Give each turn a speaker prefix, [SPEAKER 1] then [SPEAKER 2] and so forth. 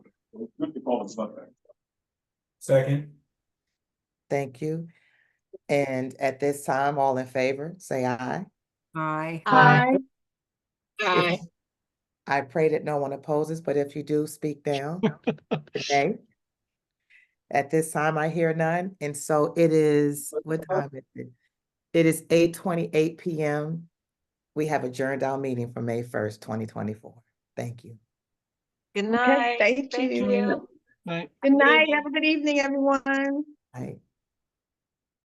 [SPEAKER 1] on Sunday.
[SPEAKER 2] Second.
[SPEAKER 3] Thank you. And at this time, all in favor, say aye.
[SPEAKER 4] Aye.
[SPEAKER 5] Aye.
[SPEAKER 3] Aye. I pray that no one opposes, but if you do, speak down. Nay. At this time, I hear none, and so it is, what time is it? It is eight twenty-eight PM. We have adjourned our meeting for May first, twenty twenty-four. Thank you.
[SPEAKER 4] Good
[SPEAKER 5] Okay,
[SPEAKER 4] night.
[SPEAKER 5] thank you.
[SPEAKER 1] Night.
[SPEAKER 5] Good night. Have a good evening, everyone.
[SPEAKER 3] Bye.